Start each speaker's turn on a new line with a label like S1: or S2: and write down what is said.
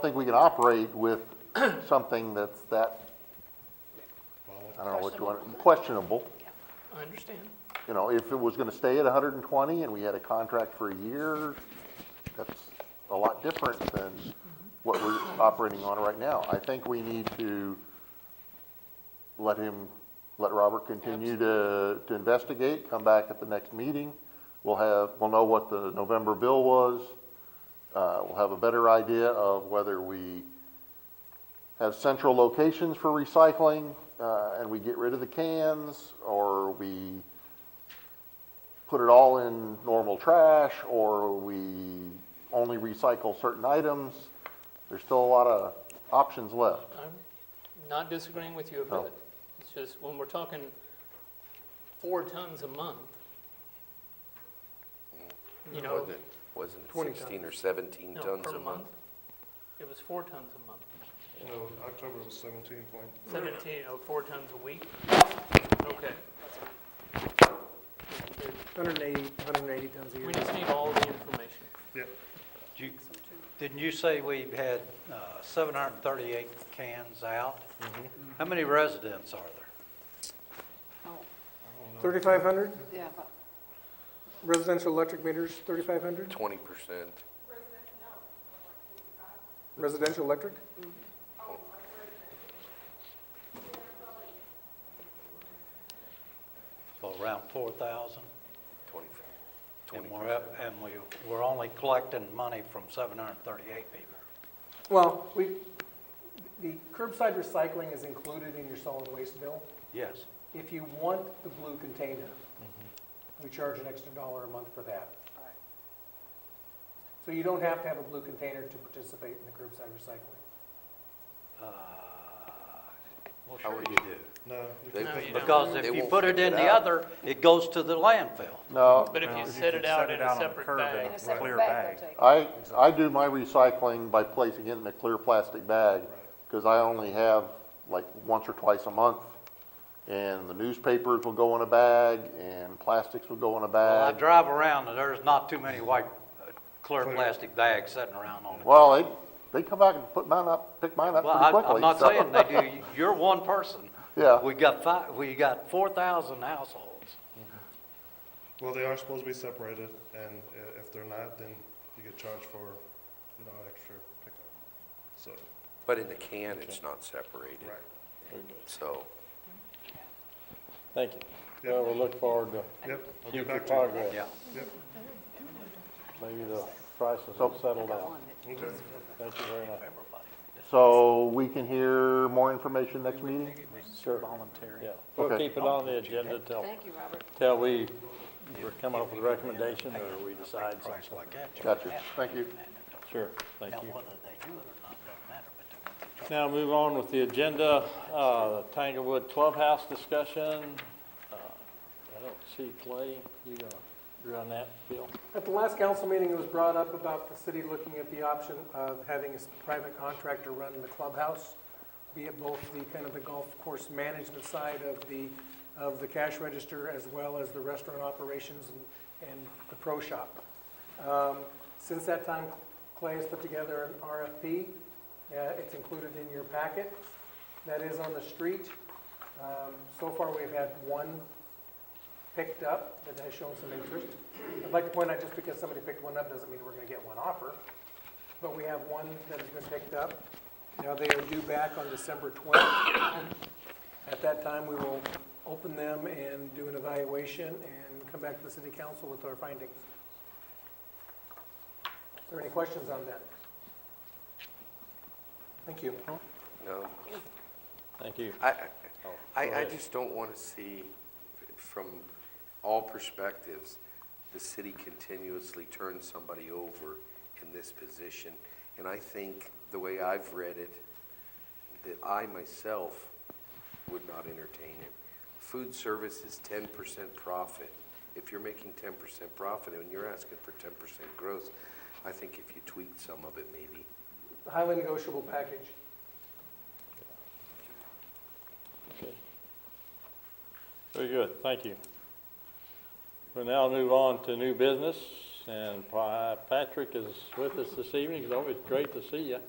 S1: think we can operate with something that's that, I don't know what you want, questionable.
S2: I understand.
S1: You know, if it was gonna stay at hundred and twenty and we had a contract for a year, that's a lot different than what we're operating on right now. I think we need to let him, let Robert continue to, to investigate, come back at the next meeting. We'll have, we'll know what the November bill was. Uh, we'll have a better idea of whether we have central locations for recycling, uh, and we get rid of the cans, or we put it all in normal trash, or we only recycle certain items. There's still a lot of options left.
S2: I'm not disagreeing with you a
S1: No.
S2: bit. It's just when we're talking four tons a month, you know,
S3: Wasn't, wasn't it sixteen or seventeen
S2: no,
S3: tons
S2: per
S3: a month?
S2: It was four tons a month.
S4: No, October was seventeen point,
S2: Seventeen, oh, four tons a week? Okay.
S5: Hundred and eighty, hundred and eighty tons a year.
S2: We just need all the information.
S4: yeah,
S6: You- Didn't you say we've had uh, 738 cans out? How many residents are there?
S5: Thirty-five hundred
S7: Yeah, but
S5: residential electric meters, thirty-five hundred
S3: Twenty percent.
S5: residential electric?
S6: So around 4,000?
S3: Twenty.
S6: And we're, up- and we, we're only collecting money from 738 people.
S5: Well, we, the curbside recycling is included in your solid waste bill.
S6: Yes.
S5: If you want the blue container, we charge an extra dollar a month for that. So you don't have to have a blue container to participate in the curbside recycling.
S6: Uh, Well,
S3: How
S6: sure
S3: would
S6: you do.
S4: no. you
S3: They-
S4: can't-
S2: No, you don't.
S6: Because
S3: They
S6: if you
S3: won't
S6: put it
S3: pick
S6: in
S3: it
S6: the
S3: up.
S6: other, it goes to the landfill.
S1: No,
S2: But if you set it out in a separate
S7: in
S2: bag,
S7: a separate bag, they'll take it.
S1: I, I do my recycling by placing it in a clear plastic bag, because I only have like once or twice a month. And the newspapers will go in a bag, and plastics will go in a
S6: Well, I
S1: bag.
S6: drive around, and there's not too many white, uh, clear plastic bags sitting around on it.
S1: Well, they, they come out and put mine up, pick mine up
S6: Well,
S1: pretty
S6: I-
S1: quickly.
S6: I'm not
S1: so-
S6: saying they do, you're one person.
S1: Yeah.
S6: We got five, we got four thousand households.
S4: Well, they are supposed to be separated, and i- if they're not, then you get charged for, you know, extra pickup. So,
S3: But in the can, it's not separated,
S4: right.
S3: so.
S8: Thank you.
S4: Yeah.
S8: Well, we look forward to
S4: Yep, I'll get
S8: future
S4: back to
S8: progress.
S6: Yeah.
S4: you. Yep,
S8: Maybe the prices will settle down.
S4: okay.
S8: Thank you very much.
S1: So we can hear more information next meeting?
S8: Yeah, we'll
S1: Okay.
S8: keep it on the agenda till,
S7: Thank you, Robert.
S8: till we come up with a recommendation or we decide something.
S6: Like that, you
S1: Gotcha, thank you.
S8: Sure, thank
S6: know,
S8: you.
S6: whether they do it or not, doesn't matter, but they're gonna be
S8: Now move on with the agenda, uh, Tanglewood Clubhouse discussion. Uh, I don't see Clay, you gonna, you're on that, Bill?
S5: At the last council meeting, it was brought up about the city looking at the option of having a s- private contractor run the clubhouse, be it both the kind of the golf course management side of the, of the cash register as well as the restaurant operations and, and the pro shop. Um, Since that time, Clay has put together an RFP. Uh, It's included in your packet. That is on the street. Um, So far, we've had one picked up that has shown some interest. I'd like to point out, just because somebody picked one up doesn't mean we're gonna get one offer, but we have one that has been picked up. Now, they are due back on December 20th. At that time, we will open them and do an evaluation and come back to the city council with our findings. Are there any questions on that? Thank you.
S3: No,
S8: Thank you.
S3: I, I- I, I just don't want to see, from all perspectives, the city continuously turn somebody over in this position. And I think, the way I've read it, that I myself would not entertain it. Food service is ten percent profit. If you're making ten percent profit and you're asking for ten percent growth, I think if you tweak some of it, maybe.
S5: Highly negotiable package.
S8: Okay. Very good, thank you. We'll now move on to new business, and Pa- Patrick is with us this evening, it's always great to see you.